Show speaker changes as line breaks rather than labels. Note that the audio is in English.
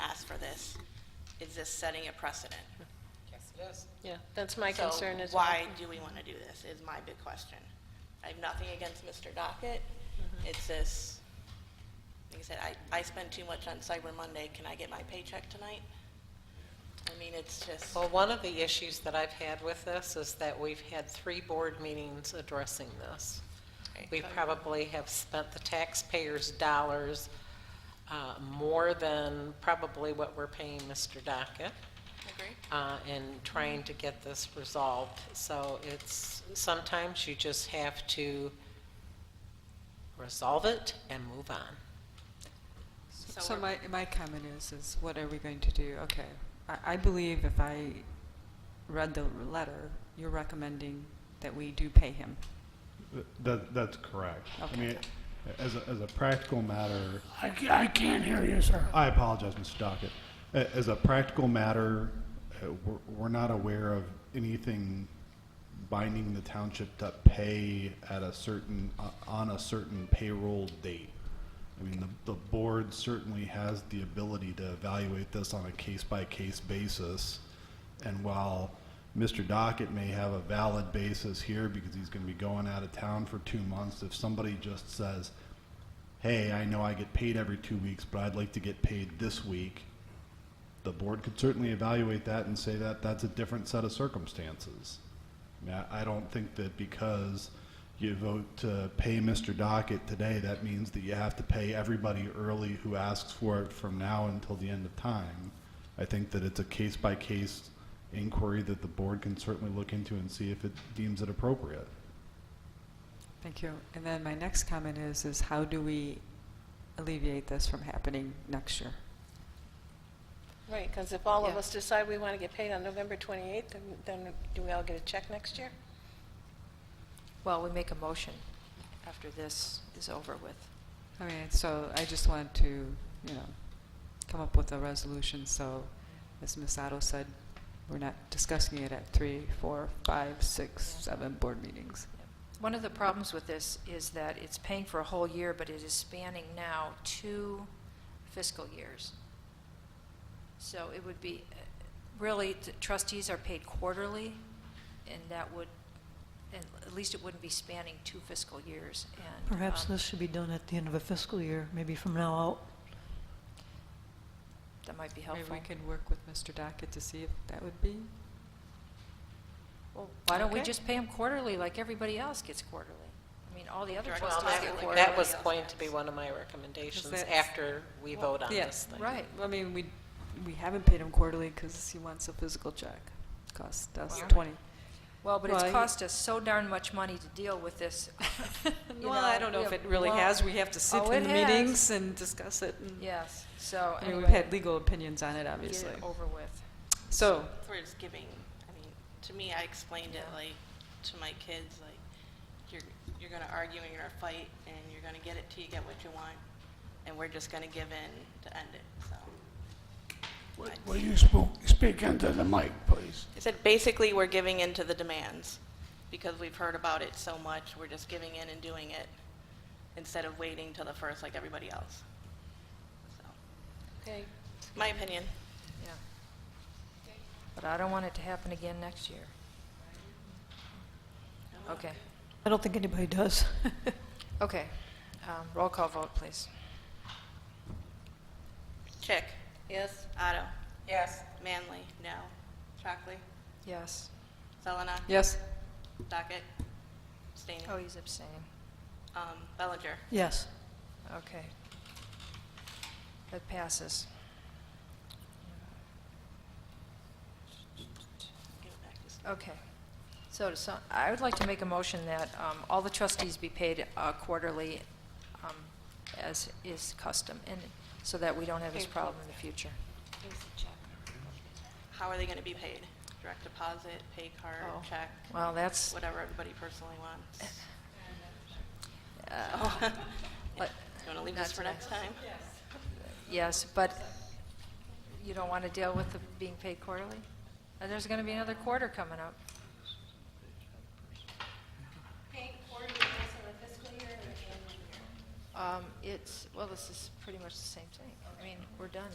this, is this setting a precedent?
Yes, it is.
Yeah, that's my
So
concern as well.
Why do we want to do this is my big question. I have nothing against Mr. Dockett.
Mm-hmm.
It's this, like I said, I, I spend too much on Cyber Monday. Can I get my paycheck tonight? I mean, it's just,
Oh,
Well, one of the issues that I've had with this is that we've had three board meetings addressing this. We probably have spent the taxpayers' dollars uh, more than probably what we're paying Mr. Dockett
agree?
uh, in trying to get this resolved. So it's, sometimes you just have to resolve it and move on.
So my, my comment is, is what are we going to do? Okay, I, I believe if I read the letter, you're recommending that we do pay him.
Th- That, that's correct. I
Okay.
mean, as a, as a practical matter,
I, ca- I can't hear you, sir.
I apologize, Mr. Dockett. A- As a practical matter, uh, we're, we're not aware of anything binding the township to pay at a certain, uh, on a certain payroll date. I mean, the, the board certainly has the ability to evaluate this on a case-by-case basis. And while Mr. Dockett may have a valid basis here because he's gonna be going out of town for two months, if somebody just says, hey, I know I get paid every two weeks, but I'd like to get paid this week, the board could certainly evaluate that and say that that's a different set of circumstances. I mean, I, I don't think that because you vote to pay Mr. Dockett today, that means that you have to pay everybody early who asks for it from now until the end of time. I think that it's a case by case inquiry that the board can certainly look into and see if it deems it appropriate.
Thank you. And then my next comment is, is how do we alleviate this from happening next year?
Right, because if all of
Yeah.
us decide we want to get paid on November 28th, then- then do we all get a check next year?
Well, we make a motion after this is over with.
I mean, so I just want to, you know, come up with a resolution, so as Ms. Otto said, we're not discussing it at three, four, five, six, seven board meetings.
One of the problems with this is that it's paying for a whole year, but it is spanning now two fiscal years. So it would be, uh, really, the trustees are paid quarterly, and that would, and at least it wouldn't be spanning two fiscal years. And
Perhaps
um,
this should be done at the end of a fiscal year, maybe from now out.
That might be
Maybe
helpful.
we can work with Mr. Dockett to see if that would be
Well, Why don't we
Okay.
just pay them quarterly, like everybody else gets quarterly? I mean, all the other
Well,
trustees
Well,
get
that,
quarterly.
that was going to be one of my recommendations
that's-
after we vote on this
Yes,
thing.
Right.
I mean, we, we haven't paid him quarterly because he wants a physical check. Cost us
Wow.
twenty.
Well, but it's
Well, I-
cost us so darn much money to deal with this. you
Well, I don't know
we
if it
have
really
long-
has. We have to sit
Oh,
through
it
the
has.
meetings and discuss it. and-
Yes, so
I mean,
anyway.
we've had legal opinions on it,
Get
obviously.
it over with.
So,
For his giving, I mean, to me, I explained it like, to my kids, like, you're, you're gonna argue and you're gonna fight, and you're gonna get it till you get what you want, and we're just gonna give in to end it, so.
Will- Will you spook, speak into the mic, please?
I said, basically, we're giving in to the demands because we've heard about it so much. We're just giving in and doing it instead of waiting till the first like everybody else. So,
Okay,
My opinion.
Yeah. But I don't want it to happen again next year. Okay,
I don't think anybody does.
okay. Um, Roll call vote, please.
Chick,
yes?
Otto,
Yes.
Manley, no. Chockley,
Yes.
Selena,
yes,
Dockett, Stain,
Oh, he's abstaining.
um, Bellinger.
Yes.
Okay. That passes.
Give it back to Stain.
Okay. So, to some- I would like to make a motion that um, all the trustees be paid uh, quarterly um, as is custom, and so that we don't have this problem in the future.
How are they going to be paid? Direct deposit, pay card,
Oh.
check,
Well, that's,
whatever everybody personally wants.
uh,
You
But-
want to leave this
Not
for next time?
yes, but you don't want to deal with the being paid quarterly? And there's going to be another quarter coming up.
Paying quarterly based on the fiscal year or the annual year?
Um, It's, well, this is pretty much the same thing. I mean, we're done.